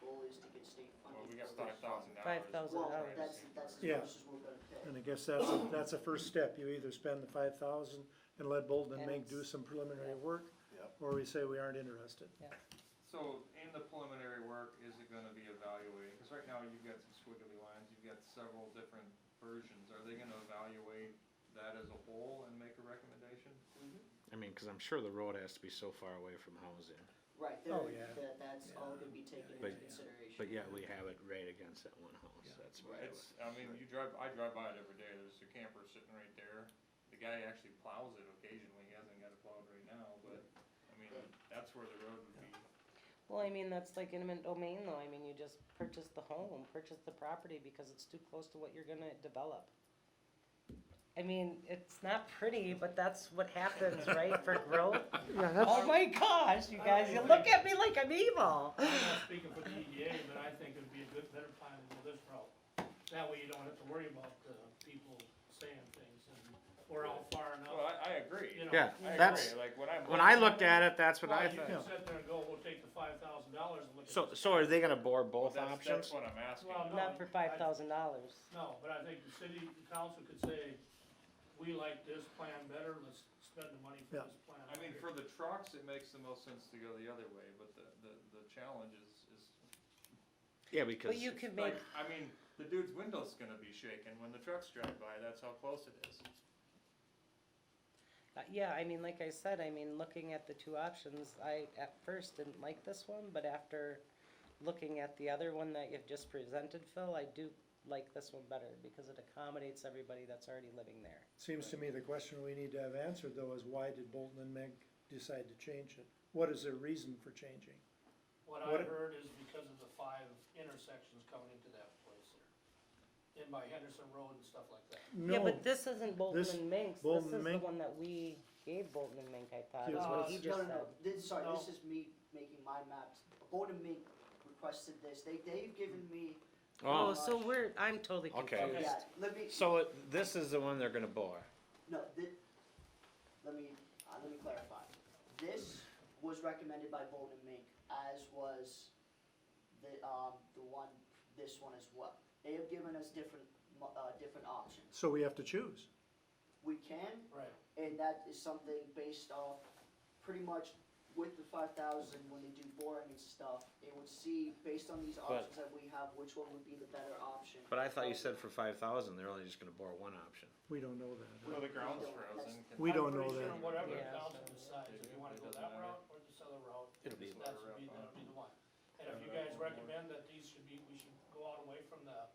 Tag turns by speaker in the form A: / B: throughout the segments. A: goal is to get state funded.
B: Well, we got five thousand dollars.
C: Five thousand
A: Well,
C: dollars.
A: that's, that's as
D: Yeah.
A: much as we're gonna
D: And
A: pay.
D: I guess that's, a- that's a first step, you either spend the five thousand and let Bolden and
C: And
D: Mink
C: it's-
D: do some preliminary work,
E: Yep.
D: or we say we aren't interested.
B: So in the preliminary work, is it gonna be evaluating, cause right now you've got some squiggly lines, you've got several different versions, are they gonna evaluate that as a whole and make a recommendation?
A: Mhm.
F: I mean, because I'm sure the road has to be so far away from housing,
A: Right,
D: Oh,
A: there,
D: yeah.
A: that, that's all gonna be taken
F: But-
A: into consideration.
F: but yet we have it right against that one house, that's why. I
B: It's, I mean, you drive, I drive by it every day, there's a camper sitting right there, the guy actually plows it occasionally, he hasn't got it plowed right now, but, I mean, that's where the road would be.
C: Well, I mean, that's like intimate domain though, I mean, you just purchase the home, purchase the property because it's too close to what you're gonna develop. I mean, it's not pretty, but that's what happens, right, for growth? Oh my gosh, you guys, you look at me like I'm evil.
G: I'm not speaking for the EDA, but I think it'd be a good, better plan to go this route. That way you don't have to worry about, uh, people saying things and, or how
B: Well,
G: far enough,
B: I, I agree,
G: you know.
F: Yeah,
B: I
F: That's-
B: agree, like, when I'm.
F: When I looked at it, that's what
G: Well,
F: I
G: you can
F: thought.
G: sit there and go, we'll take the five thousand dollars and look at.
F: So,
G: this."
F: so are they gonna bore both
B: That's, that's
F: options?
B: what I'm asking.
G: Well, no,
C: Not for
G: I-
C: five thousand dollars.
G: No, but I think the city council could say, we like this plan better, let's spend the money for
D: Yeah.
G: this plan.
B: I mean, for the trucks, it makes the most sense to go the other way, but the, the, the challenge is, is,
F: Yeah, because,
C: But you could make,
B: like, I mean, the dude's window's gonna be shaking when the trucks drive by, that's how close it is.
C: uh, yeah, I mean, like I said, I mean, looking at the two options, I at first didn't like this one, but after looking at the other one that you've just presented, Phil, I do like this one better because it accommodates everybody that's already living there.
D: Seems to me the question we need to have answered though is why did Bolton and Mink decide to change it? What is their reason for changing?
G: What I
D: What-
G: heard is because of the five intersections coming into that place there, in by Henderson Road and stuff like that.
C: Yeah,
D: No,
C: but this isn't Bolton
D: this-
C: and Minks, this
D: Bolton
C: is
D: and
C: the
D: Mink-
C: one that we gave Bolton and Mink, I thought, is
D: Yeah,
C: what
G: Uh,
C: he
G: no,
C: just
A: No, no,
C: said.
A: no, this, sorry,
G: No.
A: this is me making my maps. Bowden Mink requested this, they, they've given me,
C: Oh,
F: oh,
C: so we're, I'm totally
F: Okay.
C: confused.
A: yeah, let me,
F: so it- this is the one they're gonna bore.
A: no, thi- let me, uh, let me clarify. This was recommended by Bowden Mink, as was the, um, the one, this one as well. They have given us different, mo- uh, different options.
D: so we have to choose.
A: We can
G: Right.
A: And that is something based off, pretty much with the five thousand, when they do boring and stuff, they would see, based on these options that we have, which one would be the better option.
F: But I thought you said for five thousand, they're only just gonna bore one option.
D: We don't know that.
B: So the ground's frozen.
D: We don't know
G: I'm pretty
D: that.
G: sure whatever the
C: Yeah.
G: council decides, if you wanna go that route or this other route,
F: It'll be-
G: that's would be, that'll be the one. And if you
B: Yeah.
G: guys recommend that these should be, we should go out away from the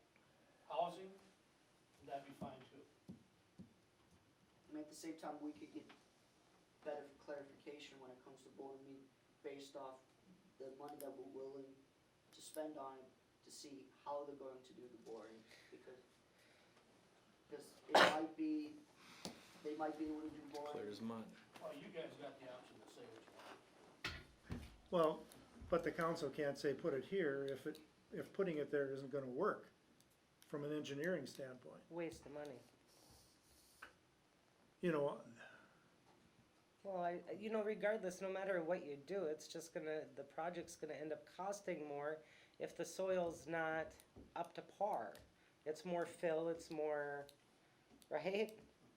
G: housing, that'd be fine too.
A: And at the same time, we could get better clarification when it comes to board meeting, based off the money that we're willing to spend on it, to see how they're going to do the boring, because, because it might be, they might be able to do
F: Clear
A: boring,
F: as mud.
G: Well, you guys got the option to say what you want.
D: Well, but the council can't say put it here if it, if putting it there isn't gonna work from an engineering standpoint.
C: Waste of money.
D: You know,
C: Well, I, you know, regardless, no matter what you do, it's just gonna, the project's gonna end up costing more if the soil's not up to par. It's more fill, it's more, right?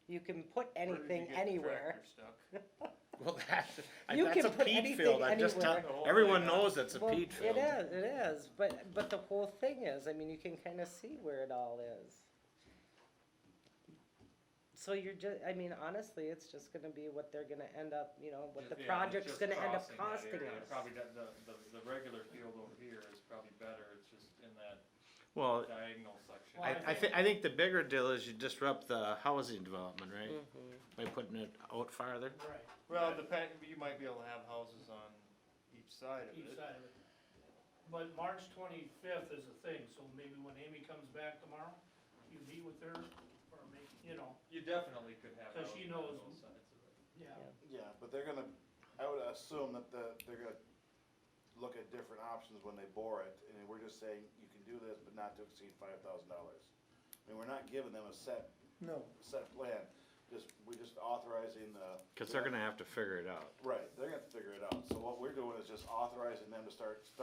C: You can put
B: Where did you
C: anything
B: get the
C: anywhere.
B: tractor stuck?
F: Well, that,
C: You
F: that's
C: can
F: a
C: put
F: peat
C: anything
F: field, I'm just
C: anywhere.
F: telling,
B: The whole
F: everyone
B: thing.
F: knows it's a
C: Well,
F: peat field.
C: It is, it is, but, but the whole thing is, I mean, you can kinda see where it all is. So you're ju- I mean, honestly, it's just gonna be what they're gonna end up, you know, what the
B: Yeah,
C: project's
B: just
C: gonna end up
B: crossing that
C: costing
B: area.
C: us.
B: Probably the, the, the- the regular field over here is probably better, it's just in that
F: Well,
B: diagonal section.
G: Well,
F: I, I thi- I think the bigger deal is you disrupt the housing development, right?
C: Mhm.
F: By putting it out farther.
G: Right,
B: Well, depend, you might be able to have houses on each side of
G: each
B: it.
G: side of it. But March twenty-fifth is the thing, so maybe when Amy comes back tomorrow, you meet with her, or make, you know,
B: You definitely could have.
G: 'Cause she
B: houses on
G: knows-
B: both sides of it.
G: yeah.
E: Yeah, but they're gonna, I would assume that the, they're gonna look at different options when they bore it, and we're just saying, you can do this, but not to exceed five thousand dollars. I mean, we're not giving them a set,
D: no,
E: set plan, just, we're just authorizing the.
F: Cause they're gonna have to figure it out.
E: Right, they're gonna have to figure it out, so what we're doing is just authorizing them to start, start